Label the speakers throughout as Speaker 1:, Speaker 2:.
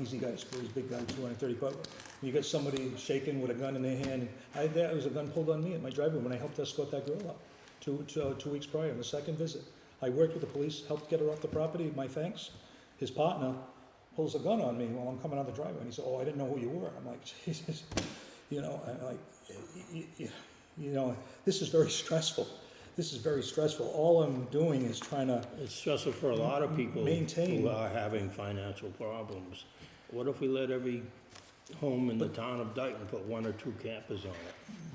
Speaker 1: easy guy to screw, he's a big guy, two hundred and thirty, but you get somebody shaking with a gun in their hand, I, there was a gun pulled on me at my driveway when I helped escort that girl up, two, two, uh, two weeks prior, on the second visit. I worked with the police, helped get her off the property, my thanks. His partner pulls a gun on me while I'm coming out the driveway, and he said, oh, I didn't know who you were. I'm like, Jesus, you know, I'm like, y- y- you know, this is very stressful. This is very stressful. All I'm doing is trying to
Speaker 2: It's stressful for a lot of people
Speaker 1: Maintain.
Speaker 2: who are having financial problems. What if we let every home in the town of Dayton put one or two campers on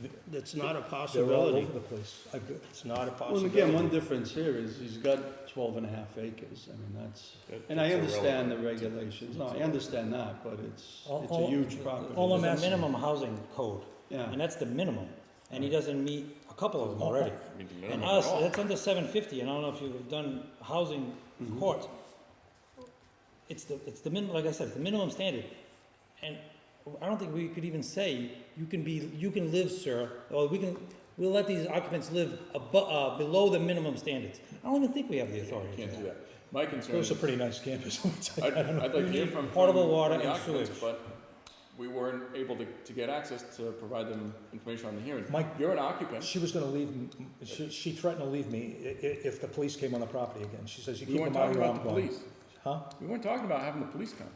Speaker 2: it? That's not a
Speaker 1: They're all
Speaker 2: possibility.
Speaker 1: over the place. I've got,
Speaker 2: It's not a
Speaker 3: Well, again, one
Speaker 2: possibility.
Speaker 3: difference here is he's got 12 and a half acres. I mean, that's,
Speaker 4: That-
Speaker 3: and I
Speaker 4: that's
Speaker 3: understand the
Speaker 4: irrelevant.
Speaker 3: regulations. No, I understand that, but it's,
Speaker 1: All-
Speaker 3: it's a
Speaker 1: all-
Speaker 3: huge property.
Speaker 1: all I'm
Speaker 5: There's a
Speaker 1: asking-
Speaker 5: minimum housing code,
Speaker 3: Yeah.
Speaker 5: and that's the minimum, and he doesn't meet a couple of them already.
Speaker 4: Oh, I mean, the
Speaker 5: And
Speaker 4: minimum at
Speaker 5: us,
Speaker 4: all.
Speaker 5: that's under seven fifty, and I don't know if you've done housing courts. It's the, it's the minimum, like I said, it's the minimum standard, and I don't think we could even say, you can be, you can live, sir, or we can, we'll let these occupants live abo- uh, below the minimum standards. I don't even think we have the authority to do
Speaker 4: Can't do
Speaker 5: that.
Speaker 4: that. My concern
Speaker 1: it was
Speaker 4: is,
Speaker 1: a pretty nice campus. I'll tell you.
Speaker 4: I'd, I'd like to hear from.
Speaker 5: portable
Speaker 4: from
Speaker 5: water
Speaker 4: the
Speaker 5: and
Speaker 4: occupants,
Speaker 5: sewage.
Speaker 4: But we weren't able to, to get access to provide them information on the hearing.
Speaker 1: Mike-
Speaker 4: You're an occupant.
Speaker 1: She was gonna leave, m- she, she threatened to leave me i- i- if the police came on the property again. She says, you
Speaker 4: We
Speaker 1: keep
Speaker 4: weren't
Speaker 1: them out
Speaker 4: talking
Speaker 1: here,
Speaker 4: about
Speaker 1: I'm
Speaker 4: the
Speaker 1: going.
Speaker 4: police.
Speaker 1: Huh?
Speaker 4: We weren't talking about having the police come.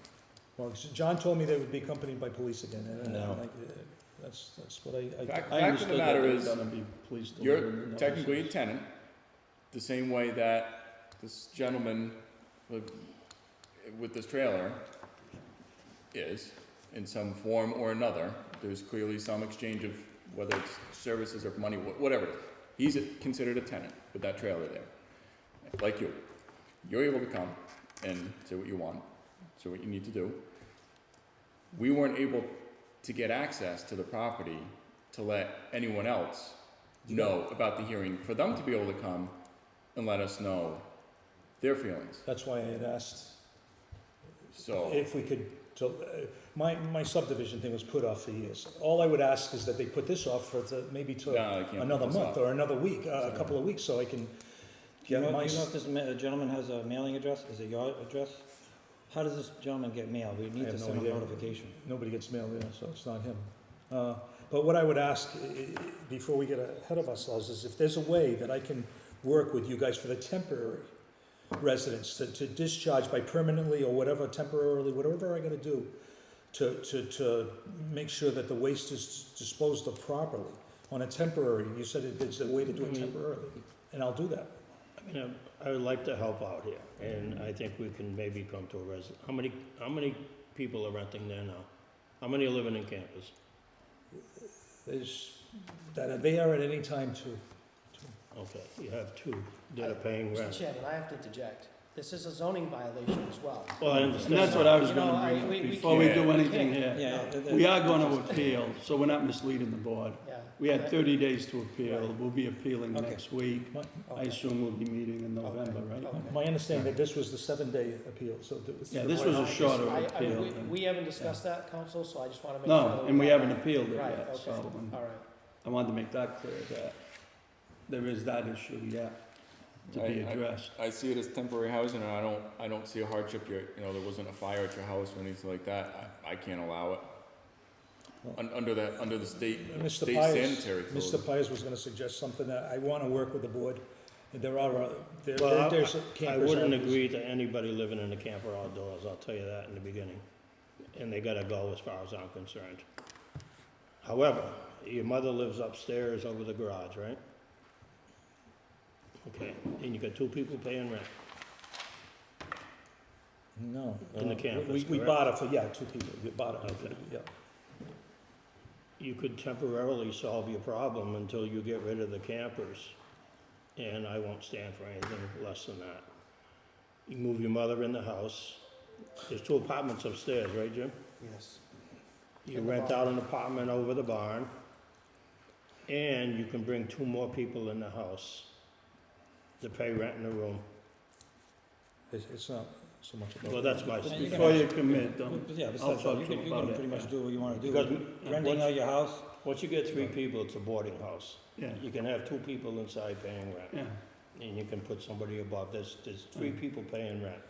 Speaker 1: Well, s- John told me they would be accompanied by police again, and- and
Speaker 3: No.
Speaker 1: I'm like, eh, that's, that's what I, I,
Speaker 3: I
Speaker 4: Fact, fact of the
Speaker 3: understood that
Speaker 4: matter
Speaker 3: they're
Speaker 4: is,
Speaker 3: gonna be pleased to live in
Speaker 4: you're
Speaker 3: those.
Speaker 4: technically a tenant, the same way that this gentleman with, with this trailer is, in some form or another. There's clearly some exchange of whether it's services or money, wha- whatever it is. He's a- considered a tenant with that trailer there, like you. You're able to come and say what you want, say what you need to do. We weren't able to get access to the property to let anyone else know about the hearing, for them to be able to come and let us know their feelings.
Speaker 1: that's why I had asked
Speaker 4: So,
Speaker 1: if we could, to, uh, my, my subdivision thing was put off for years. All I would ask is that they put this off for the, maybe
Speaker 4: No, they
Speaker 1: to
Speaker 4: can't put
Speaker 1: another
Speaker 4: this
Speaker 1: month
Speaker 4: off.
Speaker 1: or another week, uh, a couple of weeks, so I can
Speaker 5: Do you
Speaker 1: get
Speaker 5: know,
Speaker 1: my,
Speaker 5: do you know if
Speaker 1: s-
Speaker 5: this ma- gentleman has a mailing address? Is it your address? How does this gentleman get mail? We need
Speaker 1: have
Speaker 5: to
Speaker 1: no
Speaker 5: send him
Speaker 1: idea.
Speaker 5: a notification.
Speaker 1: nobody gets mail there, so it's not him. Uh, But what I would ask, i- i- before we get ahead of ourselves, is if there's a way that I can work with you guys for the temporary residents to, to discharge by permanently or whatever, temporarily, whatever I gotta do to, to, to make sure that the waste is disposed of properly on a temporary, you said it- it's a way to do it temporarily, and I'll do that.
Speaker 2: I mean, I- I would like to help out here, and I think we can maybe come to a res, how many, how many people are renting there now? How many are living in campers?
Speaker 1: There's, that they are at any time to,
Speaker 2: Okay, you have two that are paying
Speaker 6: Mr.
Speaker 2: rent.
Speaker 6: Chairman, I have to interject. This is a zoning violation as well.
Speaker 2: Well, I
Speaker 3: And that's
Speaker 2: understand,
Speaker 3: what I was
Speaker 6: You know,
Speaker 3: gonna
Speaker 6: I-
Speaker 3: bring
Speaker 6: we-
Speaker 3: up
Speaker 6: we
Speaker 3: before we do
Speaker 6: can't-
Speaker 3: anything here.
Speaker 5: Yeah. th- th-
Speaker 3: We are gonna appeal, so we're not misleading the board.
Speaker 6: Yeah.
Speaker 3: We had
Speaker 6: That-
Speaker 3: thirty days to appeal.
Speaker 6: Right.
Speaker 3: We'll be appealing
Speaker 5: Okay.
Speaker 3: next week.
Speaker 1: my,
Speaker 3: I assume we'll be meeting in
Speaker 6: okay,
Speaker 3: November, right?
Speaker 6: okay.
Speaker 1: my understanding that this was the seven-day appeal, so. there was-
Speaker 3: Yeah, this was a shorter
Speaker 6: I- I-
Speaker 3: appeal.
Speaker 6: we-
Speaker 3: than-
Speaker 6: We haven't discussed that, council, so I just want to make sure.
Speaker 3: No,
Speaker 6: that
Speaker 3: and we
Speaker 6: have
Speaker 3: haven't appealed it
Speaker 6: Right,
Speaker 3: yet,
Speaker 6: okay.
Speaker 3: so um,
Speaker 6: All right.
Speaker 3: I wanted to make that clear, that there is that issue yet to
Speaker 4: I-
Speaker 3: be
Speaker 4: I-
Speaker 3: addressed.
Speaker 4: I see it as temporary housing, and I don't, I don't see a hardship here, you know, there wasn't a fire at your house or anything like that, I, I can't allow it. Un- under that, under the state,
Speaker 1: Mr.
Speaker 4: state
Speaker 1: Pires-
Speaker 4: sanitary code.
Speaker 1: Mr. Pires was gonna suggest something that I wanna work with the board, and there are, uh, there,
Speaker 2: Well,
Speaker 1: there- there's
Speaker 2: I- I
Speaker 1: campers.
Speaker 2: wouldn't
Speaker 1: out there.
Speaker 2: agree to anybody living in a camper outdoors, I'll tell you that in the beginning. And they gotta go as far as I'm concerned. However, your mother lives upstairs over the garage, right? Okay, and you got two people paying rent.
Speaker 1: No. Uh,
Speaker 2: In the
Speaker 1: We-
Speaker 2: campus,
Speaker 1: We, we
Speaker 2: correct?
Speaker 1: bought it for, yeah, two people, we bought it,
Speaker 2: Okay.
Speaker 1: yeah.
Speaker 2: You could temporarily solve your problem until you get rid of the campers. And I won't stand for anything less than that. You move your mother in the house. There's two apartments upstairs, right, Jim?
Speaker 6: Yes.
Speaker 2: You rent out an apartment over the barn, and you can bring two more people in the house to pay rent in the room.
Speaker 1: It's, it's not so much about.
Speaker 2: Well, that's my
Speaker 5: Yeah, you
Speaker 2: speech.
Speaker 5: can
Speaker 3: Before
Speaker 5: have-
Speaker 3: you commit,
Speaker 5: But-
Speaker 3: don't,
Speaker 5: but Yeah,
Speaker 3: I'll
Speaker 5: besides, that,
Speaker 3: talk
Speaker 5: you
Speaker 3: to
Speaker 5: can,
Speaker 3: him
Speaker 5: you can
Speaker 3: about
Speaker 5: pretty
Speaker 3: it.
Speaker 5: much do what you wanna do.
Speaker 2: Because
Speaker 5: Renting out your house,
Speaker 2: Once you get three people, it's a boarding house.
Speaker 3: yeah,
Speaker 2: You can have two people inside paying rent,
Speaker 3: yeah.
Speaker 2: and you can put somebody above. There's, there's three people paying rent.